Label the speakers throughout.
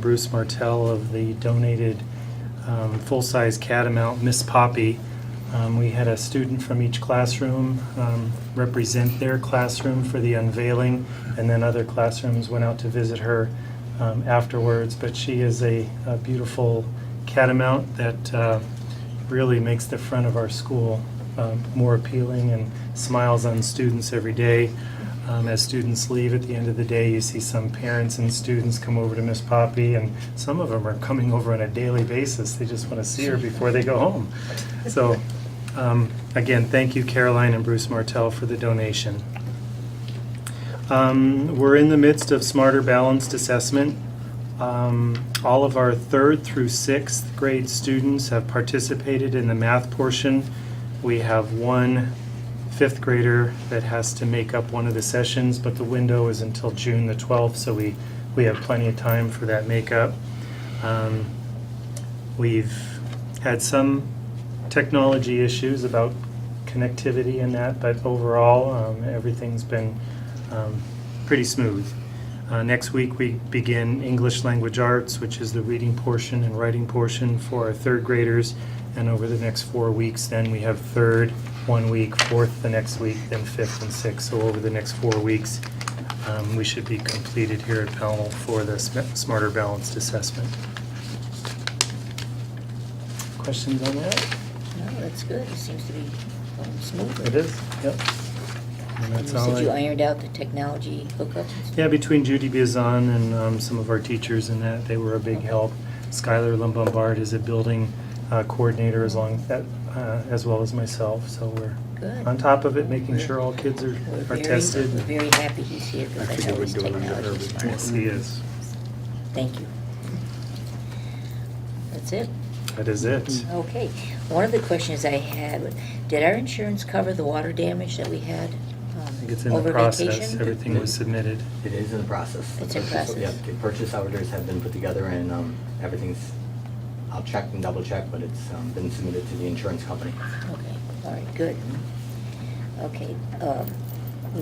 Speaker 1: Bruce Martell of the donated um, full-size Catamount Miss Poppy. Um, We had a student from each classroom um, represent their classroom for the unveiling, and then other classrooms went out to visit her um, afterwards. But she is a a beautiful catamount that uh, really makes the front of our school um, more appealing and smiles on students every day. Um, As students leave at the end of the day, you see some parents and students come over to Miss Poppy, and some of them are coming over on a daily basis. They just want to see her before they go home. So, um, again, thank you, Caroline and Bruce Martell, for the donation. Um, We're in the midst of Smarter Balanced Assessment. Um, All of our third through sixth grade students have participated in the math portion. We have one fifth grader that has to make up one of the sessions, but the window is until June the 12th, so we, we have plenty of time for that makeup. Um, We've had some technology issues about connectivity and that, but overall, um, everything's been um, pretty smooth. Uh, Next week, we begin English Language Arts, which is the reading portion and writing portion for our third graders. And over the next four weeks, then we have third one week, fourth the next week, then fifth and sixth. So over the next four weeks, um, we should be completed here at Powell for the Sm- Smarter Balanced Assessment. Questions on that?
Speaker 2: No, that's good. It seems to be going smoothly.
Speaker 1: It is? Yep. And
Speaker 2: And
Speaker 1: that's
Speaker 2: you
Speaker 1: all
Speaker 2: said you
Speaker 1: I-
Speaker 2: ironed out the technology hookups and stuff?
Speaker 1: Yeah, between Judy Bizan and um, some of our teachers and that, they were a big help. Skylar Lombard is a building uh, coordinator as long, that, uh, as well as myself, so we're
Speaker 2: Good.
Speaker 1: on top of it, making sure all kids are
Speaker 2: We're
Speaker 1: are
Speaker 2: very-
Speaker 1: tested.
Speaker 2: We're very happy he's here
Speaker 3: I
Speaker 2: because I
Speaker 3: figured
Speaker 2: know his
Speaker 3: we'd go into
Speaker 2: technology
Speaker 3: urban
Speaker 2: is
Speaker 1: Yes,
Speaker 2: smart.
Speaker 1: he is.
Speaker 2: Thank you. That's it?
Speaker 1: That is it.
Speaker 2: Okay. One of the questions I had, did our insurance cover the water damage that we had um,
Speaker 1: I think it's in the
Speaker 2: over
Speaker 1: process.
Speaker 2: vacation?
Speaker 1: Everything was submitted.
Speaker 3: It is in the process. The
Speaker 2: It's in
Speaker 3: purchase-
Speaker 2: process.
Speaker 3: Yeah, the purchase orders have been put together and um, everything's, I'll check and double check, but it's um, been submitted to the insurance company.
Speaker 2: Okay, all right, good. Okay, um,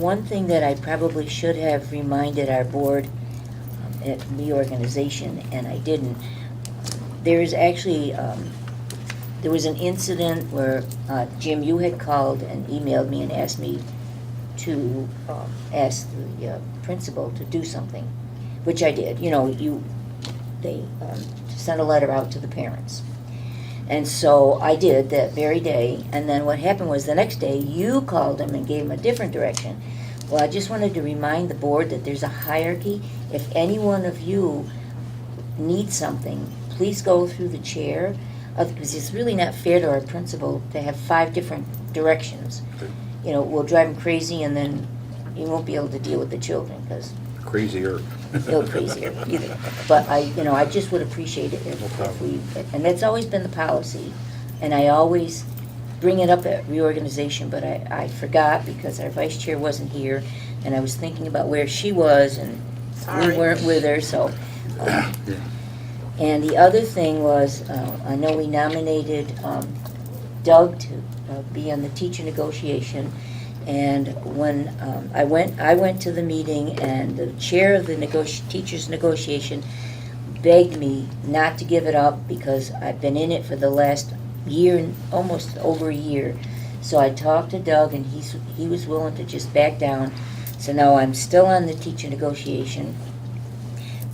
Speaker 2: one thing that I probably should have reminded our board um, at reorganization, and I didn't, there is actually, um, there was an incident where, uh, Jim, you had called and emailed me and asked me to um, ask the uh, principal to do something, which I did. You know, you, they um, sent a letter out to the parents. And so I did that very day, and then what happened was the next day, you called them and gave them a different direction. Well, I just wanted to remind the board that there's a hierarchy. If any one of you need something, please go through the chair, uh, because it's really not fair to our principal to have five different directions. You know, we'll drive him crazy, and then you won't be able to deal with the children, because
Speaker 4: crazier.
Speaker 2: go crazier either. But I, you know, I just would appreciate it
Speaker 4: No
Speaker 2: if, if
Speaker 4: problem.
Speaker 2: we, and that's always been the policy. And I always bring it up at reorganization, but I, I forgot because our vice chair wasn't here and I was thinking about where she was and we
Speaker 5: Sorry.
Speaker 2: weren't with her, so. um, And the other thing was, uh, I know we nominated, um, Doug to uh, be on the teacher negotiation. And when um, I went, I went to the meeting, and the chair of the negoti- teachers' negotiation begged me not to give it up because I've been in it for the last year, and almost over a year. So I talked to Doug, and he's he was willing to just back down. So now I'm still on the teacher negotiation,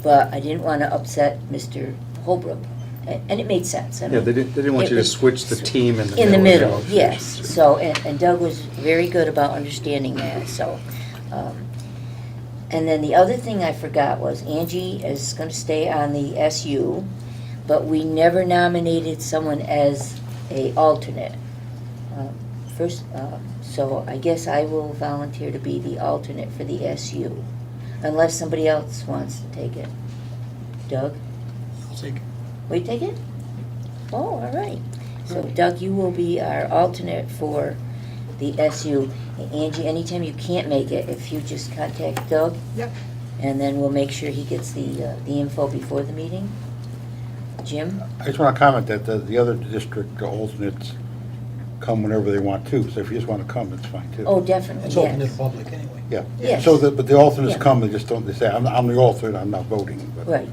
Speaker 2: but I didn't want to upset Mr. Holbrook, A- and it made sense. I
Speaker 4: Yeah,
Speaker 2: mean-
Speaker 4: they didn't, they didn't want you to
Speaker 2: it-
Speaker 4: switch the team in the middle.
Speaker 2: in the middle,
Speaker 4: of the
Speaker 2: yes.
Speaker 4: negotiations.
Speaker 2: So, and and Doug was very good about understanding that, so. um, And then the other thing I forgot was Angie is gonna stay on the SU, but we never nominated someone as a alternate. Um, First, um, so I guess I will volunteer to be the alternate for the SU, unless somebody else wants to take it. Doug?
Speaker 6: I'll take it.
Speaker 2: We take it? Oh, all right. So Doug, you will be our alternate for the SU. And Angie, anytime you can't make it, if you just contact Doug,
Speaker 5: Yep.
Speaker 2: and then we'll make sure he gets the, uh, the info before the meeting. Jim?
Speaker 6: I just want to comment that the, the other district alternates come whenever they want to, so if you just want to come, it's fine too.
Speaker 2: Oh, definitely,
Speaker 7: It's open to the
Speaker 2: yes.
Speaker 7: public anyway.
Speaker 6: Yeah.
Speaker 2: yes.
Speaker 6: So the, but the alternates
Speaker 2: Yeah.
Speaker 6: come, they just don't, they say, I'm, I'm the alternate, I'm not voting. but-
Speaker 2: Right,